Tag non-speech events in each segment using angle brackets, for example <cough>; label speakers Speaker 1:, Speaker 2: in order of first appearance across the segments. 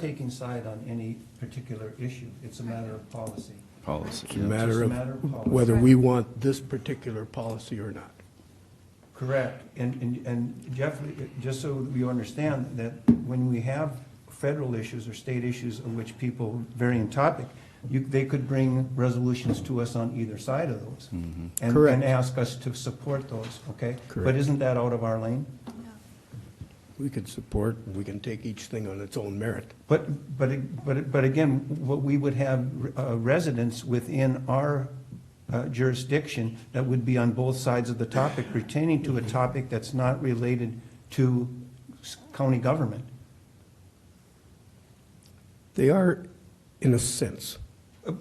Speaker 1: taking side on any particular issue. It's a matter of policy.
Speaker 2: policy.
Speaker 3: It's a matter
Speaker 1: It's a matter of
Speaker 3: of
Speaker 1: policy.
Speaker 3: whether we want this particular policy or not.
Speaker 1: Correct. And, and, and Jeff, just so you understand, that when we have federal issues or state issues of which people vary in topic, you, they could bring resolutions to us on either side of
Speaker 3: Mm-hmm.
Speaker 1: those. And,
Speaker 3: Correct.
Speaker 1: and ask us to support those, okay? But
Speaker 3: Correct.
Speaker 1: isn't that out of our lane?
Speaker 3: We could support, and we can take each thing on its own merit.
Speaker 1: But, but, but, but again, what we would have uh, residents within our uh, jurisdiction that would be on both sides of the topic pertaining to a topic that's not related to s- county government.
Speaker 3: They are, in a sense,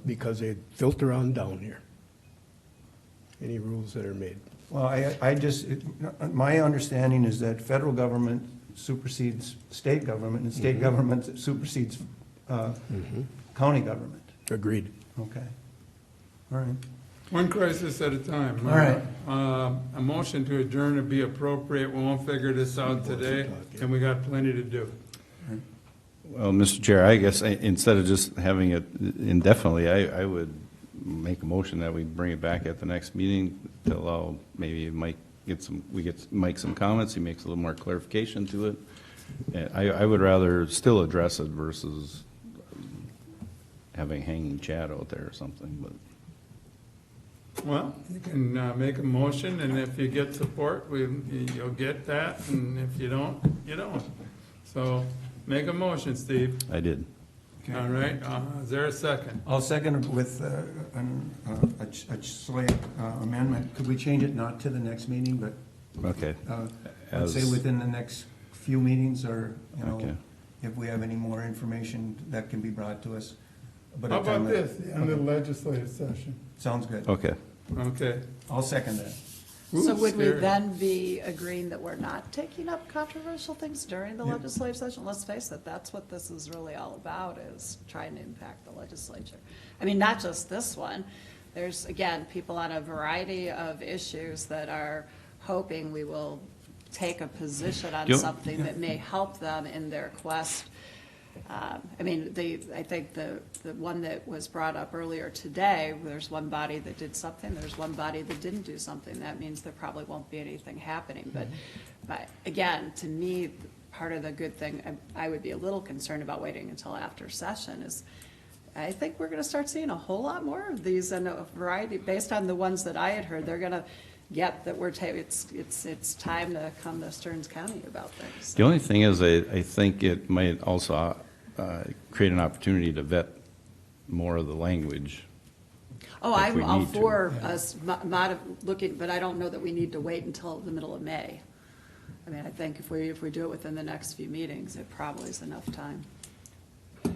Speaker 3: because they filter on down here. Any rules that are made.
Speaker 1: Well, I, I just, it- my understanding is that federal government supersedes state government and state government supersedes uh, county government.
Speaker 3: Agreed.
Speaker 1: Okay. All right.
Speaker 4: One crisis at a time.
Speaker 1: All right.
Speaker 4: Uh, A motion to adjourn would be appropriate. We won't figure this out today, and we got plenty to do.
Speaker 2: Well, Mr. Chair, I guess I- instead of just having it indefinitely, I, I would make a motion that we bring it back at the next meeting to allow maybe Mike get some, we get Mike some comments, he makes a little more clarification to it. And I, I would rather still address it versus having hanging chat out there or something, but.
Speaker 4: Well, you can uh, make a motion, and if you get support, we, you'll get that, and if you don't, you don't. So make a motion, Steve.
Speaker 2: I did.
Speaker 4: All right, Uh, is there a second?
Speaker 1: I'll second with uh, an- uh, a ch- a slight uh, amendment. Could we change it not to the next meeting, but
Speaker 2: Okay.
Speaker 1: uh, let's say
Speaker 2: As-
Speaker 1: within the next few meetings or, you know,
Speaker 2: Okay.
Speaker 1: if we have any more information that can be brought to us? But
Speaker 4: How
Speaker 1: at time
Speaker 4: about
Speaker 1: of-
Speaker 4: this, in the legislative session?
Speaker 1: Sounds good.
Speaker 2: Okay.
Speaker 4: Okay.
Speaker 1: I'll second that.
Speaker 5: So
Speaker 4: Oops,
Speaker 5: would we
Speaker 4: scary.
Speaker 5: then be agreeing that we're not taking up controversial things during the
Speaker 1: Yeah.
Speaker 5: legislative session? Let's face it, that's what this is really all about, is trying to impact the legislature. I mean, not just this one. There's, again, people on a variety of issues that are hoping we will take a position on
Speaker 2: Yep.
Speaker 5: something that may help them in their quest um, I mean, the, I think the, the one that was brought up earlier today, there's one body that did something, there's one body that didn't do something. That means there probably won't be anything happening. But, but again, to me, part of the good thing, I I would be a little concerned about waiting until after session is, I think we're gonna start seeing a whole lot more of these and a variety, based on the ones that I had heard, they're gonna get that we're ta, it's, it's, it's time to come to Stearns County about things.
Speaker 2: The only thing is, I, I think it might also uh, create an opportunity to vet more of the language.
Speaker 5: Oh,
Speaker 2: if we
Speaker 5: I'm all
Speaker 2: need to.
Speaker 5: for us mo- mod, looking, but I don't know that we need to wait until the middle of May. I mean, I think if we, if we do it within the next few meetings, it probably is enough time.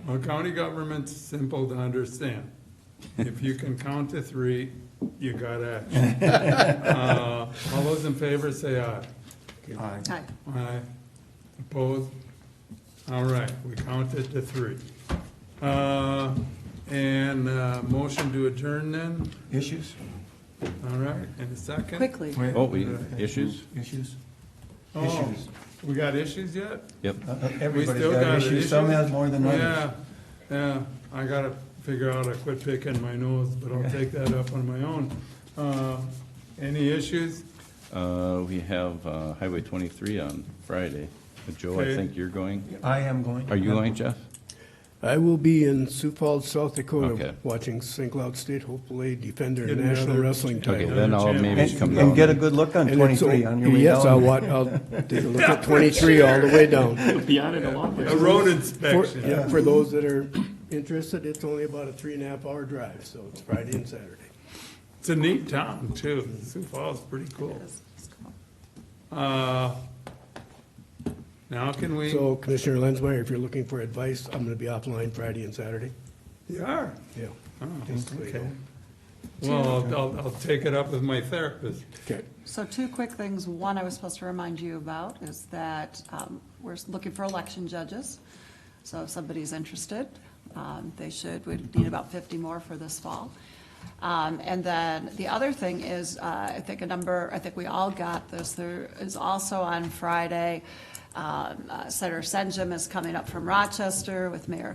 Speaker 4: Well, county government's simple to understand. If you can count to three, you got action. Uh, All those in favor say aye.
Speaker 1: Aye.
Speaker 5: Hi.
Speaker 4: Aye. Opposed? All right, we counted to three. Uh, And uh, motion to adjourn then,
Speaker 1: Issues?
Speaker 4: all right, and a second?
Speaker 5: Quickly,
Speaker 1: Wait.
Speaker 2: Oh, we, issues?
Speaker 1: Issues?
Speaker 4: Oh,
Speaker 1: Issues.
Speaker 4: We got issues yet?
Speaker 2: Yep.
Speaker 1: Uh, uh,
Speaker 4: We
Speaker 1: Everybody's
Speaker 4: still
Speaker 1: got
Speaker 4: an
Speaker 1: issues. Some
Speaker 4: issue?
Speaker 1: has more than others.
Speaker 4: Yeah, yeah, I gotta figure out, I quit picking my nose, but I'll take that up on my own. Uh, Any issues?
Speaker 2: Uh, We have uh, Highway 23 on Friday. Uh, Joe, I
Speaker 4: Okay.
Speaker 2: think you're going.
Speaker 1: I am going.
Speaker 2: Are you going, Jeff?
Speaker 3: I will be in Sioux Falls, South
Speaker 2: Okay.
Speaker 3: Dakota, watching St. Cloud State hopefully defend their
Speaker 4: Get
Speaker 3: national
Speaker 4: another-
Speaker 3: wrestling
Speaker 2: Okay,
Speaker 3: title.
Speaker 2: then I'll maybe
Speaker 1: And
Speaker 2: come
Speaker 1: and get a
Speaker 2: down.
Speaker 1: good look on
Speaker 3: And it's
Speaker 1: 23
Speaker 3: all-
Speaker 1: on your way down.
Speaker 3: Yes, I'll watch, I'll take a
Speaker 1: <laughs>
Speaker 3: look at 23 all the way down.
Speaker 4: A road
Speaker 3: For,
Speaker 4: inspection.
Speaker 3: yeah, for those that are interested, it's only about a three and a half hour drive, so it's Friday and Saturday.
Speaker 4: It's a neat town, too. Sioux Falls is pretty cool.
Speaker 5: It's- it's cool.
Speaker 4: Uh, Now can we?
Speaker 3: So Commissioner Lenzmeyer, if you're looking for advice, I'm gonna be offline Friday and Saturday.
Speaker 4: You are?
Speaker 3: Yeah.
Speaker 4: Oh,
Speaker 3: Just so you
Speaker 4: okay.
Speaker 3: know.
Speaker 4: Well, I'll- I'll, I'll take it up with my therapist.
Speaker 3: Okay.
Speaker 5: So two quick things. One I was supposed to remind you about is that um, we're looking for election judges. So if somebody's interested, um, they should, we need about 50 more for this fall. Um, And then the other thing is, uh, I think a number, I think we all got this, there is also on Friday Um, uh, Senator Senjum is coming up from Rochester with Mayor